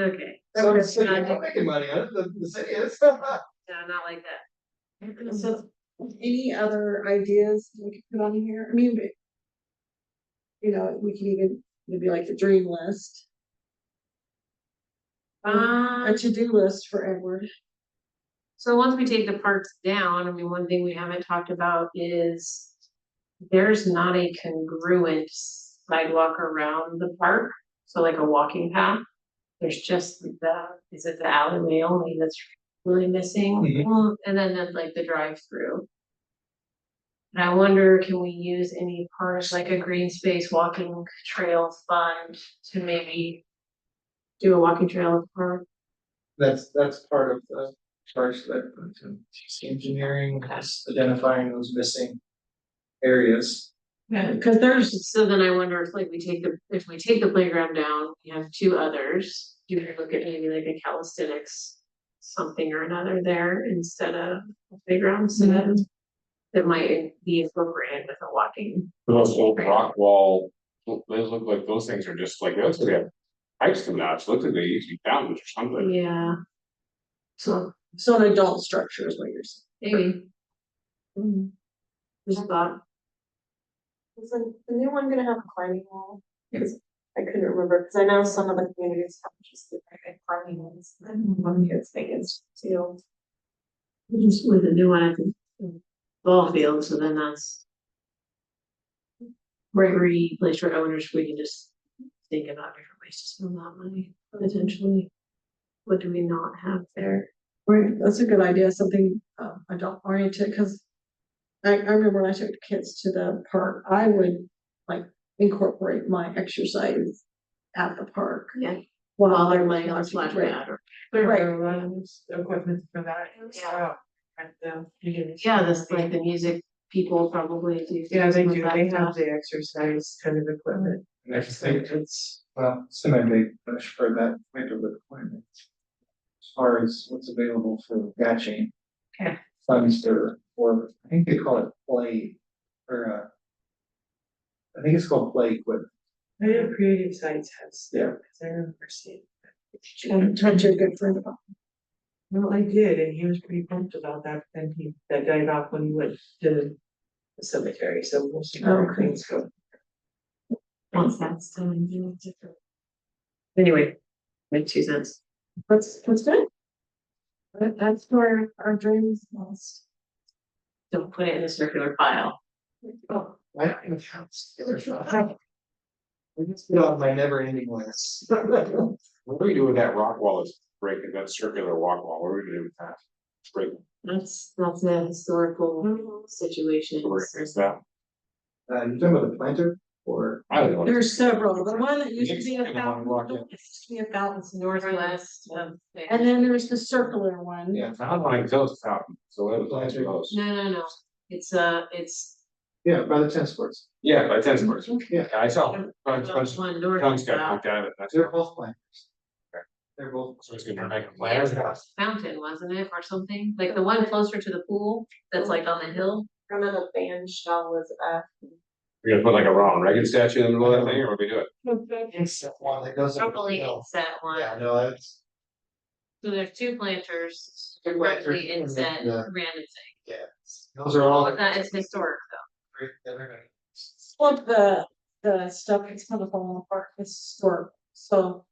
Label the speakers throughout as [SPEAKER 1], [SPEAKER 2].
[SPEAKER 1] Okay,
[SPEAKER 2] That would
[SPEAKER 1] So
[SPEAKER 2] say,
[SPEAKER 1] it's
[SPEAKER 2] I'm
[SPEAKER 1] not-
[SPEAKER 2] making money on it, the, the city is.
[SPEAKER 1] no, not like that.
[SPEAKER 3] So any other ideas we could put on here? I mean, but. You know, we can even, maybe like the dream list, a
[SPEAKER 1] Um,
[SPEAKER 3] to-do list for Edward.
[SPEAKER 1] so once we take the parks down, I mean, one thing we haven't talked about is. There's not a congruent sidewalk around the park, so like a walking path. There's just the, is it the alleyway only that's really missing?
[SPEAKER 2] Mhm.
[SPEAKER 1] Well, And then there's like the drive-through. And I wonder, can we use any parks like a green space walking trail fund to maybe. Do a walking trail at the park?
[SPEAKER 2] That's, that's part of the charge that uh, engineering is identifying those missing areas.
[SPEAKER 1] Yeah, cause there's, so then I wonder if like we take the, if we take the playground down, we have two others, do we look at maybe like a calisthenics? Something or another there instead of a playground, so that. That might be appropriate with a walking,
[SPEAKER 4] Those old rock wall, look- those look like those things are just like, those have pipes to match, look like they used to be fountains or something.
[SPEAKER 1] yeah. So,
[SPEAKER 3] So an adult structure is what you're saying.
[SPEAKER 1] maybe. Just thought,
[SPEAKER 5] Is the, the new one gonna have a climbing wall? Cause I couldn't remember, cause I know some of the communities have just the like climbing walls, and one kids think it's too.
[SPEAKER 1] just with a new one at the ball field, so then that's. Gregory, place for owners, we can just think about different ways to spend that money, potentially. What do we not have there?
[SPEAKER 3] Right, that's a good idea, something uh adult oriented, because. I I remember when I took kids to the park, I would like incorporate my exercise at the park.
[SPEAKER 1] Yeah.
[SPEAKER 3] While
[SPEAKER 1] While
[SPEAKER 3] they're
[SPEAKER 1] they're laying on a splash
[SPEAKER 3] Right.
[SPEAKER 1] pad or.
[SPEAKER 5] Equipment for that.
[SPEAKER 1] Yeah.
[SPEAKER 5] the.
[SPEAKER 1] Yeah, that's like the music people probably do.
[SPEAKER 5] Yeah, they
[SPEAKER 1] some of
[SPEAKER 5] do,
[SPEAKER 1] that
[SPEAKER 5] they have
[SPEAKER 1] stuff.
[SPEAKER 5] the exercise kind of equipment,
[SPEAKER 2] And I just think
[SPEAKER 5] it's.
[SPEAKER 2] Well, semi-big push for that kind of requirement. As far as what's available for batching.
[SPEAKER 1] Okay.
[SPEAKER 2] Funds or, or I think they call it play or uh. I think it's called play equipment.
[SPEAKER 5] I know Creative Sites has.
[SPEAKER 2] Yeah.
[SPEAKER 5] Cause I remember seeing.
[SPEAKER 3] And talked to a good friend about.
[SPEAKER 5] Well, I did, and he was pretty pumped about that, and he, that died off when he went to. The cemetery, so we'll see how
[SPEAKER 3] Oh, Okay.
[SPEAKER 5] things go.
[SPEAKER 1] Once that's done, you know, different. Anyway, make two cents.
[SPEAKER 3] That's that's good. That that's where our dreams lost.
[SPEAKER 1] Don't put it in a circular pile.
[SPEAKER 2] Oh, I don't even have. I just put on my never ending list. Uh,
[SPEAKER 4] What do we do with that rock wall that's breaking, that circular walk wall, what are we gonna do with that? It's breaking,
[SPEAKER 1] That's, that's a historical situation.
[SPEAKER 4] so we're against that,
[SPEAKER 2] Uh, you talking about the planter or?
[SPEAKER 4] I don't know.
[SPEAKER 3] There's several, the one that used to
[SPEAKER 4] Next
[SPEAKER 3] be a
[SPEAKER 1] Um,
[SPEAKER 4] second one,
[SPEAKER 3] fountain,
[SPEAKER 4] walk
[SPEAKER 3] the
[SPEAKER 4] in.
[SPEAKER 3] one that used to be a fountain,
[SPEAKER 1] It's northwest of.
[SPEAKER 3] and then there's the circular one.
[SPEAKER 2] Yeah,
[SPEAKER 4] I don't like those fountains, so that was like those,
[SPEAKER 1] No, no, no, it's uh, it's.
[SPEAKER 2] yeah, by the tennis courts.
[SPEAKER 4] yeah, by tennis courts,
[SPEAKER 2] Yeah,
[SPEAKER 4] I saw. Tons, tons,
[SPEAKER 1] One north and
[SPEAKER 4] tons got
[SPEAKER 1] south
[SPEAKER 4] knocked out of it, that's it,
[SPEAKER 2] they're both planters. They're both.
[SPEAKER 4] so it's gonna make a plan.
[SPEAKER 1] fountain, wasn't it, or something, like the one closer to the pool, that's like on the hill?
[SPEAKER 5] One of the band shell was
[SPEAKER 3] uh,
[SPEAKER 5] up.
[SPEAKER 4] We're gonna put like a Ronald Reagan statue in the middle of that thing, or what do we do it?
[SPEAKER 2] It's that one that goes. up the
[SPEAKER 1] Probably
[SPEAKER 2] hill.
[SPEAKER 1] it's that one,
[SPEAKER 2] Yeah, no, that's,
[SPEAKER 1] so there's two planters,
[SPEAKER 2] Two planters,
[SPEAKER 1] directly
[SPEAKER 2] and
[SPEAKER 1] inset,
[SPEAKER 2] then the-
[SPEAKER 1] random thing,
[SPEAKER 2] yeah, those are all.
[SPEAKER 1] that is historic
[SPEAKER 2] great that everybody-
[SPEAKER 3] What the, the stuff that's kind of falling apart is historic, so.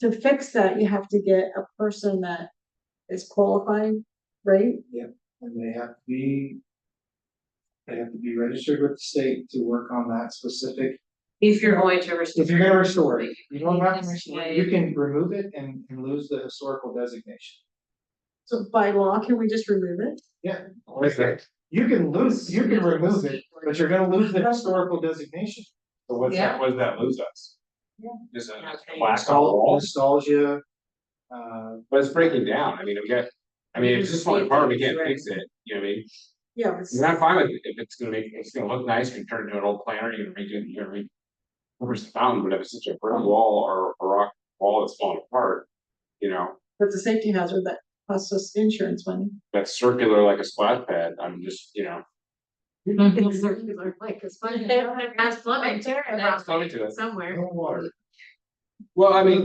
[SPEAKER 3] To fix that, you have to get a person that is qualified, right?
[SPEAKER 2] And they have to be. They have to be registered with the state to work on that specific,
[SPEAKER 1] though. If you're going to restore.
[SPEAKER 2] if you're gonna restore it, you don't have to
[SPEAKER 1] Yes,
[SPEAKER 2] restore,
[SPEAKER 1] yeah,
[SPEAKER 2] it, you
[SPEAKER 1] yeah.
[SPEAKER 2] can remove it and and lose the historical designation.
[SPEAKER 3] So by law, can we just remove it?
[SPEAKER 4] What is that?
[SPEAKER 2] You can lose, you can remove it, but you're gonna lose the historical designation.
[SPEAKER 4] So what's
[SPEAKER 1] Yeah.
[SPEAKER 4] that, what does that lose us?
[SPEAKER 3] Yeah.
[SPEAKER 4] Is it a
[SPEAKER 1] Okay.
[SPEAKER 4] plaque on the
[SPEAKER 2] Nostal-
[SPEAKER 4] wall?
[SPEAKER 2] Nostalgia. Uh,
[SPEAKER 4] But it's breaking down, I mean, we got, I mean, if this one apartment, we can't fix it, you know what I mean?
[SPEAKER 3] Yeah. it's-
[SPEAKER 4] And I'm fine with it, if it's gonna make, it's gonna look nice, you can turn it into an old planter, you can redo it, you can re. Where's the fountain, but if it's such a brick wall or a rock wall that's falling apart, you know,
[SPEAKER 3] That's a safety hazard that costs us insurance money.
[SPEAKER 4] that's circular like a splash pad, I'm just, you know.
[SPEAKER 1] It's circular, like, it's funny, it has plumbing
[SPEAKER 4] It's coming to us,
[SPEAKER 1] somewhere.
[SPEAKER 4] no water. Well, I mean,